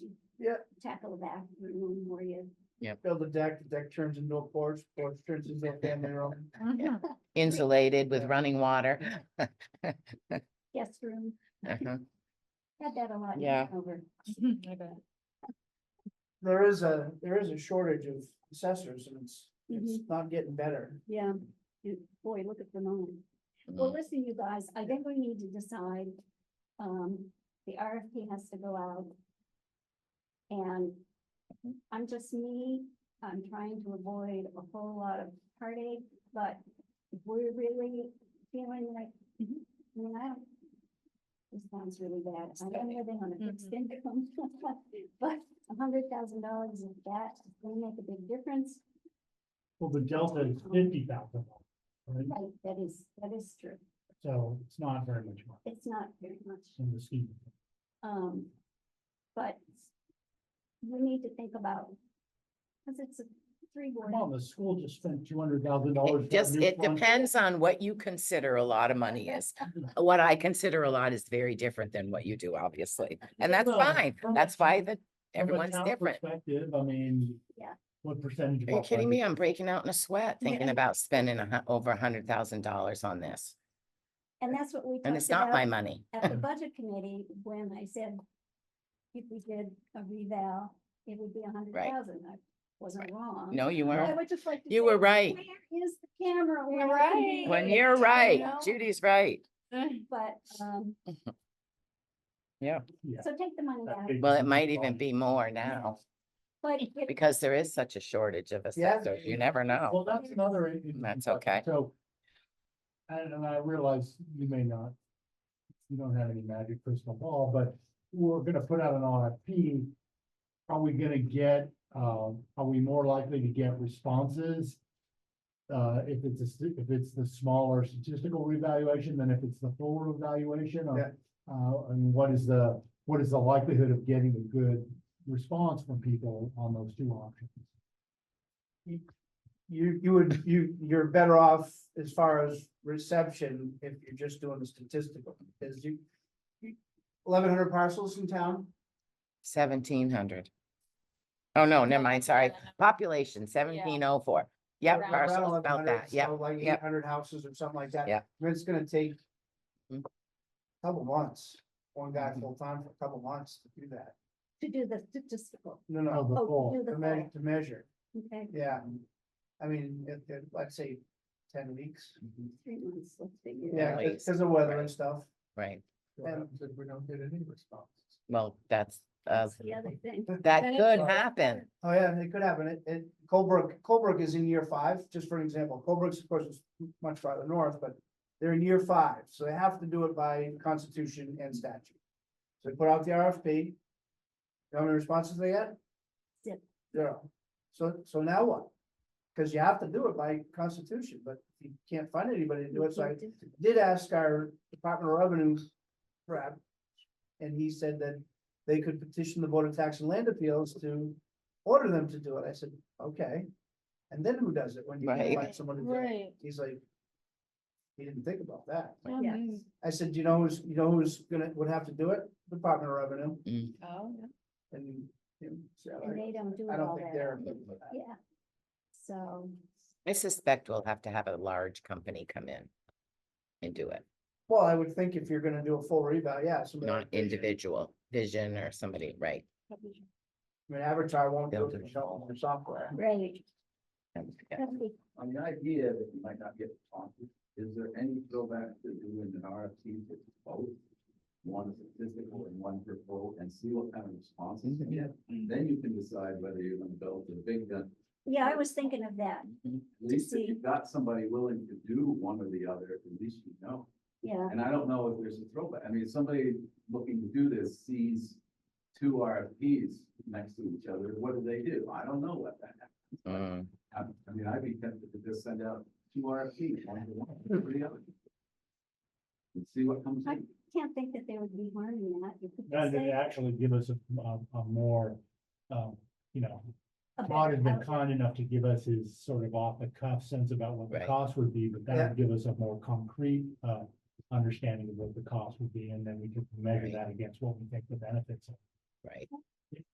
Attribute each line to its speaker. Speaker 1: you
Speaker 2: Yeah.
Speaker 1: Tackle the bathroom where you.
Speaker 2: Build a deck, the deck turns into a porch, porch turns into a family room.
Speaker 3: Mm-hmm,
Speaker 4: insulated with running water.
Speaker 1: guest room,
Speaker 4: Uh-huh.
Speaker 1: had that a lot. in
Speaker 4: Yeah.
Speaker 1: Hanover.
Speaker 3: mm-hmm,
Speaker 2: There is a, there is a shortage of assessors and it's, it's
Speaker 4: Mm-hmm.
Speaker 1: Mhm.
Speaker 2: not getting better.
Speaker 1: Yeah, You- boy, look at the moment.
Speaker 4: Mm.
Speaker 1: Well, listen, you guys, I think we need to decide, um, the RFP has to go out. And I'm just me, I'm trying to avoid a whole lot of heartache, but if we're really feeling like, I mean, I don't. This sounds really bad, I don't live on a fixed income, but a hundred thousand dollars of that is gonna make a big difference,
Speaker 5: Well, the delta is fifty thousand, right?
Speaker 1: right, that is, that is true,
Speaker 5: So it's not very much money
Speaker 1: it's not very much.
Speaker 5: in the scheme.
Speaker 1: Um, but we need to think about, because it's a three board.
Speaker 5: Come on, the school just spent two hundred thousand dollars.
Speaker 4: It just, it depends on what you consider a lot of money is. What I consider a lot is very different than what you do, obviously. And that's
Speaker 5: Well,
Speaker 4: fine.
Speaker 5: from a
Speaker 4: That's why
Speaker 5: town-
Speaker 4: that everyone's different.
Speaker 5: Perspective, I mean.
Speaker 1: Yeah.
Speaker 5: What percentage? of
Speaker 4: Are you
Speaker 5: our
Speaker 4: kidding me?
Speaker 5: budget-
Speaker 4: I'm breaking out in a sweat thinking
Speaker 1: Yeah.
Speaker 4: about spending a hu- over a hundred thousand dollars on this.
Speaker 1: And that's what we
Speaker 4: And
Speaker 1: talked
Speaker 4: it's not my
Speaker 1: about
Speaker 4: money.
Speaker 1: at the budget committee when I said if we did a reval, it would be a hundred
Speaker 4: Right.
Speaker 1: thousand. I wasn't wrong.
Speaker 4: No, you
Speaker 1: But I
Speaker 4: weren't.
Speaker 1: would just like to
Speaker 4: You
Speaker 1: say,
Speaker 4: were right.
Speaker 1: Where is the camera? when
Speaker 3: You're
Speaker 1: it can be
Speaker 3: right.
Speaker 4: When
Speaker 1: used?"
Speaker 4: you're
Speaker 1: You
Speaker 4: right,
Speaker 1: know?
Speaker 4: Judy's right.
Speaker 1: But, um,
Speaker 4: Yeah.
Speaker 5: Yeah.
Speaker 1: so take the money
Speaker 5: that
Speaker 1: out,
Speaker 5: big
Speaker 4: Well, it
Speaker 5: percentage
Speaker 4: might
Speaker 5: of
Speaker 4: even
Speaker 5: our-
Speaker 4: be more now
Speaker 1: but if
Speaker 4: because there is such a shortage of assessors. You never know.
Speaker 5: Well, that's another. i- i-
Speaker 4: That's
Speaker 5: but-
Speaker 4: okay.
Speaker 5: So. And, and I realize you may not. You don't have any magic crystal ball, but we're gonna put out an RFP. Are we gonna get, um, are we more likely to get responses? Uh, if it's a, sti- if it's the smaller statistical revaluation than if it's the full revaluation
Speaker 2: Yeah.
Speaker 5: or? Uh, and what is the, what is the likelihood of getting a good response from people on those two options?
Speaker 2: You, you would, you, you're better off as far as reception if you're just doing the statistical, because you. Eleven hundred parcels in town,
Speaker 4: Seventeen hundred. Oh, no, never mind, sorry.
Speaker 3: Yeah.
Speaker 4: Population seventeen oh four. Yep,
Speaker 3: Around
Speaker 4: parcels
Speaker 2: around
Speaker 4: about
Speaker 2: 1100,
Speaker 4: that, yep.
Speaker 2: so Like
Speaker 4: yep.
Speaker 2: eight hundred houses or something like that.
Speaker 4: Yeah.
Speaker 2: But It's gonna take.
Speaker 4: Mhm.
Speaker 2: Couple months, one guy
Speaker 5: Mm-hmm.
Speaker 4: Mhm.
Speaker 2: full time for a couple months to do that,
Speaker 1: to do the statistical,
Speaker 2: no,
Speaker 5: Oh,
Speaker 2: no,
Speaker 5: the
Speaker 1: oh,
Speaker 5: full.
Speaker 1: to do
Speaker 2: to
Speaker 1: the
Speaker 2: measure,
Speaker 1: full,
Speaker 2: to measure,
Speaker 1: okay,
Speaker 2: yeah. I mean, it, it, let's say ten weeks,
Speaker 1: three months, let's figure. it out.
Speaker 2: yeah,
Speaker 4: At least,
Speaker 2: because of weather
Speaker 4: right.
Speaker 2: and stuff.
Speaker 4: Right,
Speaker 2: What
Speaker 5: And
Speaker 2: happens we don't get any responses?
Speaker 4: well, that's, uh,
Speaker 1: That's the other thing.
Speaker 4: that
Speaker 3: And it-
Speaker 4: could happen.
Speaker 2: Oh, yeah, it could happen. It, it, Colebrook, Colebrook is in year five, just for an example. Colebrook's, of course, is m- much farther north, but they're in year five, so they have to do it by constitution and statute. So they put out the RFP. How many responses they get?
Speaker 1: Zip.
Speaker 2: Zero. So, so now what? Because you have to do it by constitution, but you can't find anybody to do it, so I did ask our Department of Revenue rep. And he said that they could petition the Board of Tax and Land Appeals to order them to do it. I said, okay. And then who does it when you can't
Speaker 4: Right.
Speaker 2: find someone to do it?
Speaker 3: Right.
Speaker 2: He's like, he didn't think about that.
Speaker 3: Oh,
Speaker 1: Yes.
Speaker 3: mm.
Speaker 2: I said, you know, who's, you know, who's gonna, would have to do it? Department of
Speaker 3: Oh,
Speaker 2: Revenue
Speaker 3: yeah.
Speaker 2: and. and so
Speaker 1: And they don't do
Speaker 2: I
Speaker 1: it
Speaker 2: don't
Speaker 1: all
Speaker 2: think
Speaker 1: that.
Speaker 2: they're.
Speaker 1: Yeah. So,
Speaker 4: I suspect we'll have to have a large company come in and do it,
Speaker 2: Well, I would think if you're gonna do a full revow, yeah. somebody
Speaker 4: not
Speaker 2: like Vision.
Speaker 4: individual, Vision or somebody, right?
Speaker 2: I mean, Avatar won't do it
Speaker 4: Building.
Speaker 2: without all their software.
Speaker 1: right,
Speaker 4: Yeah.
Speaker 1: that'd be
Speaker 6: On the idea that you might not get responses, is there any throwback to doing an RFP for both? One statistical and one for full, and see what kind of responses you get? Then you can decide whether you're gonna build the big gun.
Speaker 1: Yeah, I was thinking of that,
Speaker 6: At least if you've got somebody willing to do one or the other, at least you know.
Speaker 1: yeah,
Speaker 6: And I don't know if there's a throwback. I mean, if somebody looking to do this sees two RFPs next to each other, what do they do? I don't know what that
Speaker 4: Mm.
Speaker 6: I I mean, I'd be tempted to just send out two RFPs, one to one, for the other. And see what comes in.
Speaker 1: can't think that there would be harm in that. You could
Speaker 5: That
Speaker 1: say
Speaker 5: would actually give us a, a, a more, um, you know,
Speaker 1: a better
Speaker 5: Todd has been
Speaker 1: outlet.
Speaker 5: kind enough to give us his sort of off the cuff sense about what the
Speaker 4: Right.
Speaker 5: cost would be, but
Speaker 2: Yeah.
Speaker 5: that would give us a more concrete, uh, understanding of what the cost would be, and then we could measure
Speaker 4: Right.
Speaker 5: that against what we think the benefits are.
Speaker 4: Right,